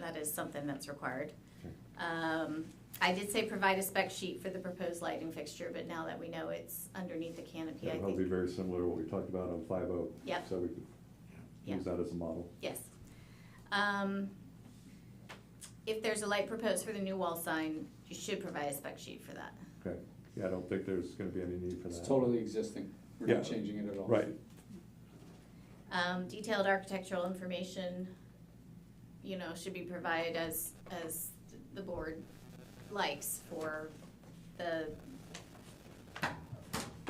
that is something that's required. Um, I did say provide a spec sheet for the proposed lighting fixture, but now that we know it's underneath the canopy, I That'll be think, very similar to what we talked about on five oh. Yep. So we could Yeah. use that as a model. yes. Um, If there's a light proposed for the new wall sign, you should provide a spec sheet for that. Okay. Yeah, I don't think there's gonna be any need for It's that. totally existing. We're Yeah. not changing it at all. Right. Um, detailed architectural information, you know, should be provided as, as the board likes for the, what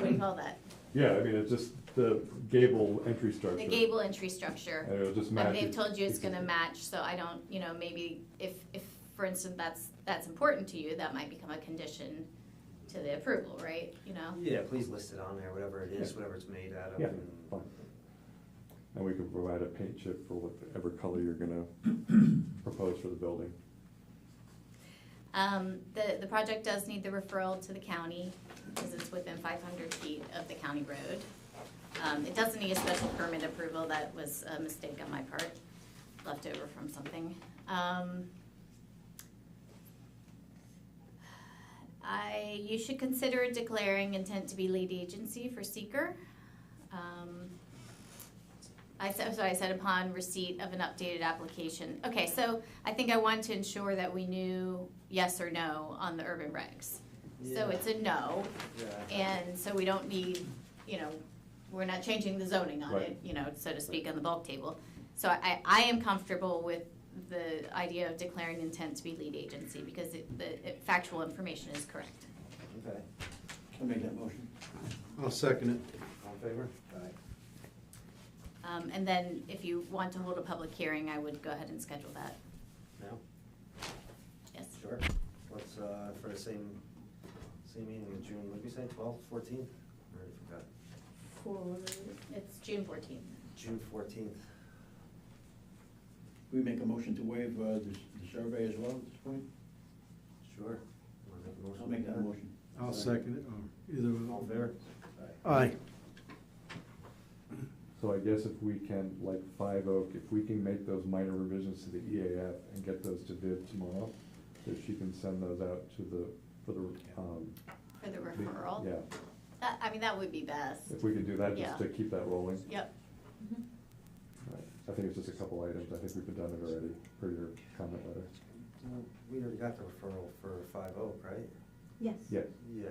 do you call that? Yeah, I mean, it's just the gable entry structure. The gable entry structure. And it'll just match. But they've it. told you it's gonna match, so I don't, you know, maybe if, if, for instance, that's, that's important to you, that might become a condition to the approval, right? You know? Yeah, please list it on there, whatever it is, Yeah. whatever it's made out of. Yeah, and- fine. And we can provide a paint chip for whatever color you're gonna propose for the building. Um, the, the project does need the referral to the county, because it's within five hundred feet of the county road. Um, it doesn't need a special permit approval, that was a mistake on my part, left over from something. Um, I, you should consider declaring intent to be lead agency for seeker. Um, I said, so I said upon receipt of an updated application. Okay, so I think I wanted to ensure that we knew yes or no on the urban regs. So Yeah, it's a no, yeah. and so we don't need, you know, we're not changing the zoning on it, Right. you know, so to speak, on the bulk table. So I, I am comfortable with the idea of declaring intent to be lead agency because it, the it- factual information is correct. Okay, I'll make that motion. I'll second it. all in favor? Um, and then if you want to hold a public hearing, I would go ahead and schedule that, No? yes. Sure. Let's, uh, for the same, same meeting in June, what'd we say, twelve, fourteen? I already forgot. For, it's June fourteenth. June fourteenth. We make a motion to waive uh, the the survey as well at this point? Sure. Wanna make a motion? I'll make that motion. I'll second it, or either All in one. favor? Aye. So I guess if we can, like Five Oak, if we can make those minor revisions to the EAF and get those to Viv tomorrow, if she can send those out to the, for the, um. For the the- referral? Yeah, That- I mean, that would be best. if we could do that, just Yeah. to keep that rolling. Yep. Right. I think it's just a couple items, I think we've done it already, per your comment letter. No, We already got the referral for Five Oak, right? Yes. Yeah, Yeah.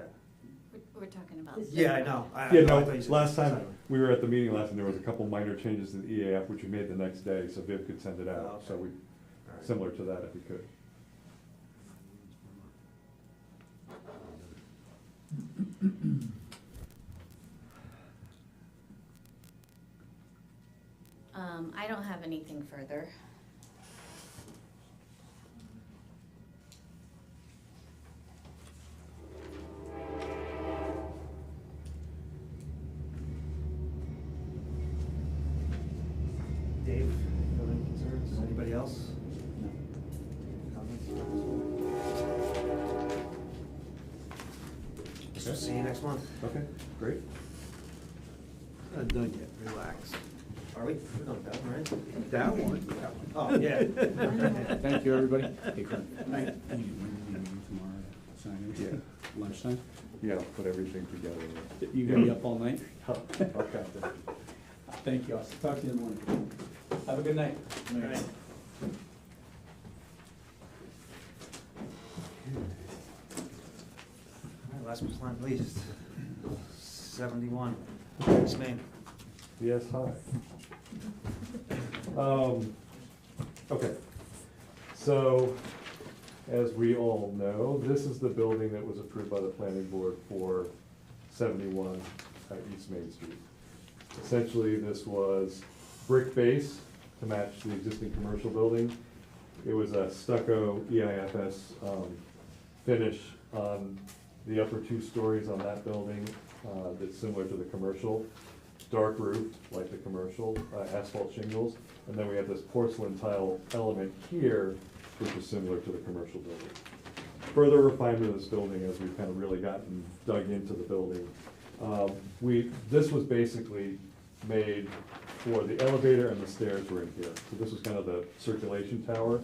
We're, we're talking about. This- Yeah, I know. I- yeah, I know, I no, thought you said- oh. last Sorry. time, we were at the meeting last, and there was a couple minor changes to the EAF, which we made the next day, so Viv could send it Oh, out, okay. so we, All right. similar to that if we could. Um, I don't have anything further. Dave, you have any concerns? Anybody else? Comments? So Okay. see you next month. Okay, great. Not done yet, relax. Are we? We're not done, right? That one. Oh, yeah. Thank you, everybody. Hey, Craig. Aye. When when are you leaving tomorrow to sign it? Yeah. Lunchtime? Yeah, I'll put everything together. You gonna be up all night? Okay. Thank you. I'll talk to you in the morning. Have a good night. Aye. All right, Last but not least, seventy-one, Yes, ma'am. Yes, hi. Um, okay, so, as we all know, this is the building that was approved by the planning board for seventy-one at East Main Street. Essentially, this was brick base to match the existing commercial building. It was a stucco E EIFS, um, finish on the upper two stories on that building, uh, that's similar to the commercial. Dark roof, like the commercial, uh, asphalt shingles, and then we have this porcelain tile element here, which is similar to the commercial building. Further refinement of this building as we've kind of really gotten dug into the building. Um, we, this was basically made for the elevator and the stairs were in here, so this was kind of the circulation tower